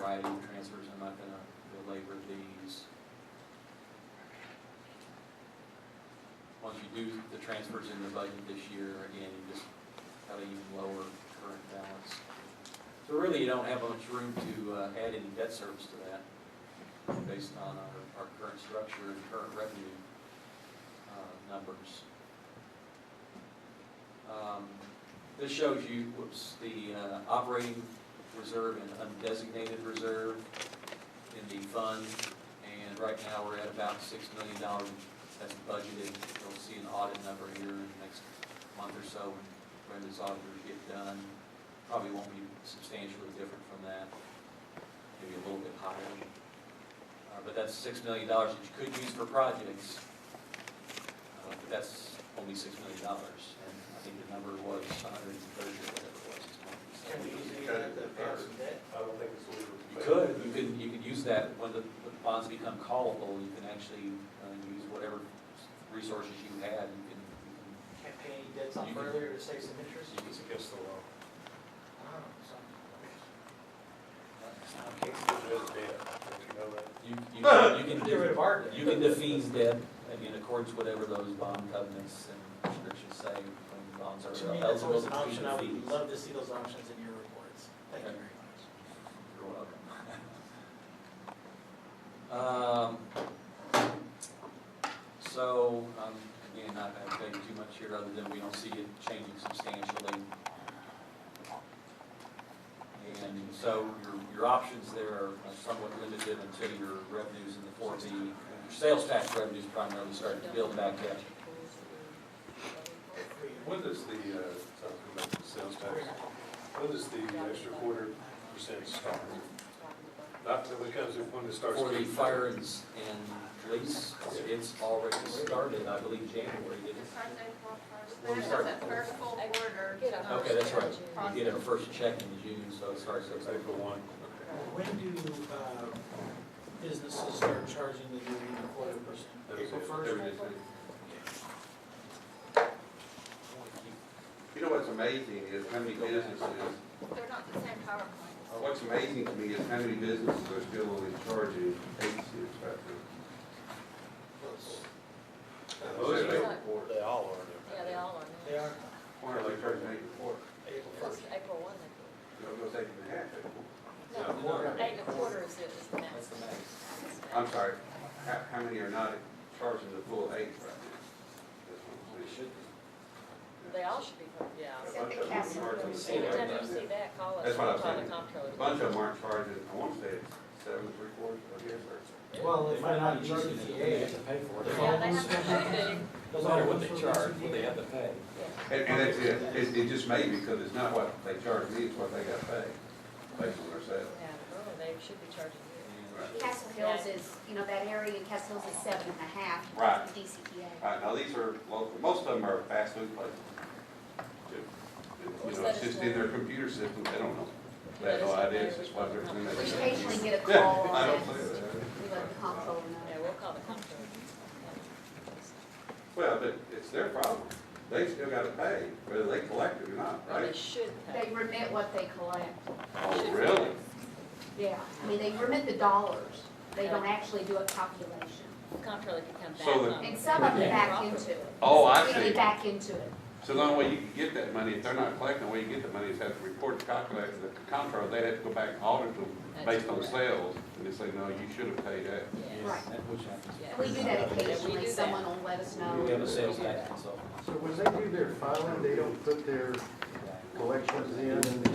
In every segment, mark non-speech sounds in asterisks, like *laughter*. value transfers, I'm not gonna belabor these. Once you do the transfers in the budget this year, again, you just have an even lower current balance. So really, you don't have much room to uh, add any debt service to that, based on our, our current structure and current revenue uh, numbers. Um, This shows you, whoops, the uh, operating reserve and undesignated reserve in the fund. And right now, we're at about six million dollars that's budgeted. You'll see an audit number here in the next month or so when Brenda's auditors get done. Probably won't be substantially different from that, maybe a little bit higher. Uh, But that's six million dollars that you could use for projects. Uh, But that's only six million dollars, and I think the number was a hundred and thirty or whatever it was. it's not- Can we use any of that to pay some debt? I don't think it's legal. You could, you could, you could use that when the the bonds become callable, you can actually uh, use whatever resources you had, you can, you Can't pay any debts off You can- earlier to save some interest? can, you It's against the law. Wow, so- can. It is bad. Don't you know that? You, you can, you can, Get rid de- of our debt. you can defease debt in accordance with whatever those bond covenants and restrictions say when bonds To me, are that's eligible always to be defeased. an option, I would love to see those options in your reports, thank you Okay. very much. You're welcome. *laughs* Um, So, um, again, not going to tell you too much here, other than we don't see it changing substantially. And so your, your options there are somewhat limited until your revenues in the four B, your sales tax revenues primarily start to build back up. When does the, uh, talking about the sales tax, when does the extra quarter percent start? Not till it comes, in- when it starts. For the kicking in. fire and, s- and police, it's already started, I believe January, didn't it? When we start- That first full quarter. Okay, that's right. We get our first check in June, so it starts at It's April one. When do, uh, businesses start charging the new unit quarter percent? That was April it. first? There it is. You know what's amazing is how many businesses, They're not the same PowerPoint. what's amazing to me is how many businesses are still only charging eight cents right now. Oh, is it? They all are. Yeah, they all are They now. are, Why are they charging eight and a quarter? April Because first. April one, they You know, it's eight and a half. eight and do. Yeah. No, No, eight and a quarter is it, is the That's max. the max. a- I'm sorry, how, how many are not charging the full eight right now? We should, They all should be, yeah. That's what I'm saying. A bunch of Anytime you see them aren't charging the full eight. that, call us, That's what I'm call the saying. comptroller. A bunch of them aren't charging, I want to say it's seven, three quarters, I guess, or. Well, They if they're might not not use using it, the they aid. have to pay for The it. Yeah, they have to No matter what they charge, what they have to pay. do. And, and that's it, it, it just may because it's not what they charge me, it's what they got paid, based on their sales. Yeah, oh, they should be charging you. Castle Hills is, you know, that area in Castle Hills is seven and a half. Right. DCPA. Alright, now these are local, most of them are fast food places. You know, it's just in their computer system, they don't know, they have no idea, it's just what they're doing. We occasionally get a Yeah, call I on it, don't say that. we let the comptroller Yeah, know. we'll call the comptroller. Well, but it's their problem, they still gotta pay, whether they collect it or not, Well, they right? should pay. They remit what they collect, Oh, really? yeah, I mean, they remit the dollars, they don't actually do a calculation. The Comptroller can come back. So the- on And it. some of them back into it. Oh, I Really see. back into it. So the only way you can get that money, if they're not collecting, the way you get the money is have to report to calculate the comptroller, they have to go back and audit them based on That's correct. sales, and they say, no, you should have paid that. Yeah. Right. that which happens. Yeah. And we do that do occasionally, that. someone will let us know. We have a sales tax consultant. So when they do their filing, they don't put their collections in and,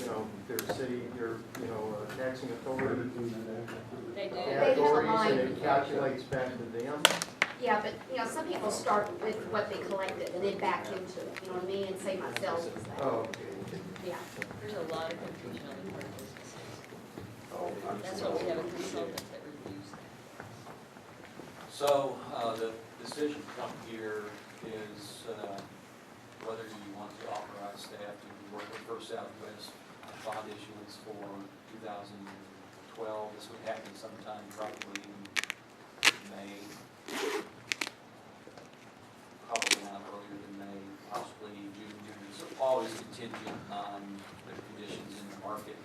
you know, their city, their, you know, uh, taxing authority. They do. and Authorities, and it calculates back to them. Yeah, but, you know, some people start with what they collected and then back into it, you know what I mean, and say myself is that, Oh, yeah. There's a lot of confusion on the part of businesses. Oh, I'm That's just- why we have a consultant that reviews that. So, uh, the decision point here is, uh, whether you want to authorize staff to work with First Southwest on bond issuance for two thousand twelve. This would happen sometime probably in May. Probably not earlier than May, possibly June, June. So always contingent on the conditions in the market